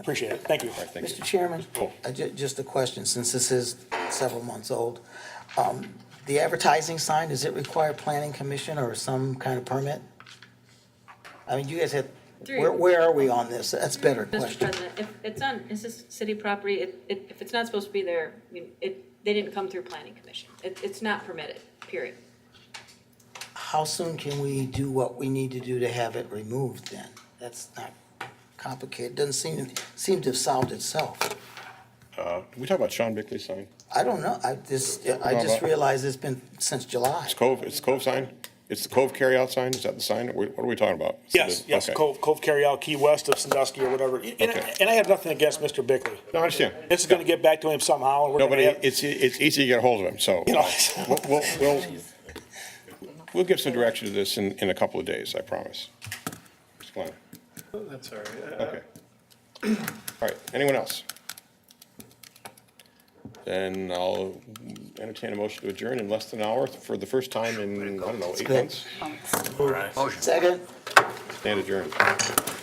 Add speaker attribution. Speaker 1: Appreciate it. Thank you.
Speaker 2: Thank
Speaker 3: Mr. Chairman,
Speaker 2: Cool.
Speaker 3: I Uh, ju- just a question, since this is several months old. Um, The advertising sign, does it require planning commission or some kind of permit? I mean, you guys had, where,
Speaker 4: Through-
Speaker 3: where are we on this? That's a better
Speaker 4: Mr.
Speaker 3: question.
Speaker 4: President, if it's on, is this city property, it, it, if it's not supposed to be there, you- it, they didn't come through planning commission. It, it's not permitted, period.
Speaker 3: How soon can we do what we need to do to have it removed then? That's not complicated, doesn't seem, seem to have solved itself.
Speaker 2: Uh, Did we talk about Sean Bickley's sign?
Speaker 3: I don't know, I just, I just realized it's been since July.
Speaker 2: It's Cove, it's Cove sign? It's the Cove carryout sign? Is that the sign? Wh- What are we talking about?
Speaker 1: Yes, yes,
Speaker 2: Okay.
Speaker 1: Cove, Cove Carryout, Key West of Sandusky or whatever. And-
Speaker 2: Okay.
Speaker 1: And, and I have nothing against Mr. Bickley.
Speaker 2: No, I understand.
Speaker 1: This is gonna get back to him somehow. and we're
Speaker 2: No, but
Speaker 1: gonna
Speaker 2: it-
Speaker 1: have-
Speaker 2: it's, it's easy to get a hold of him, so.
Speaker 1: You know.
Speaker 2: We'll, we'll, we'll, we'll give some direction to this in, in a couple of days, I promise. Mr. Klein.
Speaker 5: That's all right.
Speaker 2: Okay. All right, anyone else? Then I'll entertain a motion to adjourn in less than an hour for the first time in, I don't know, eight
Speaker 3: good.
Speaker 2: months.
Speaker 3: Second?
Speaker 2: Stand adjourned.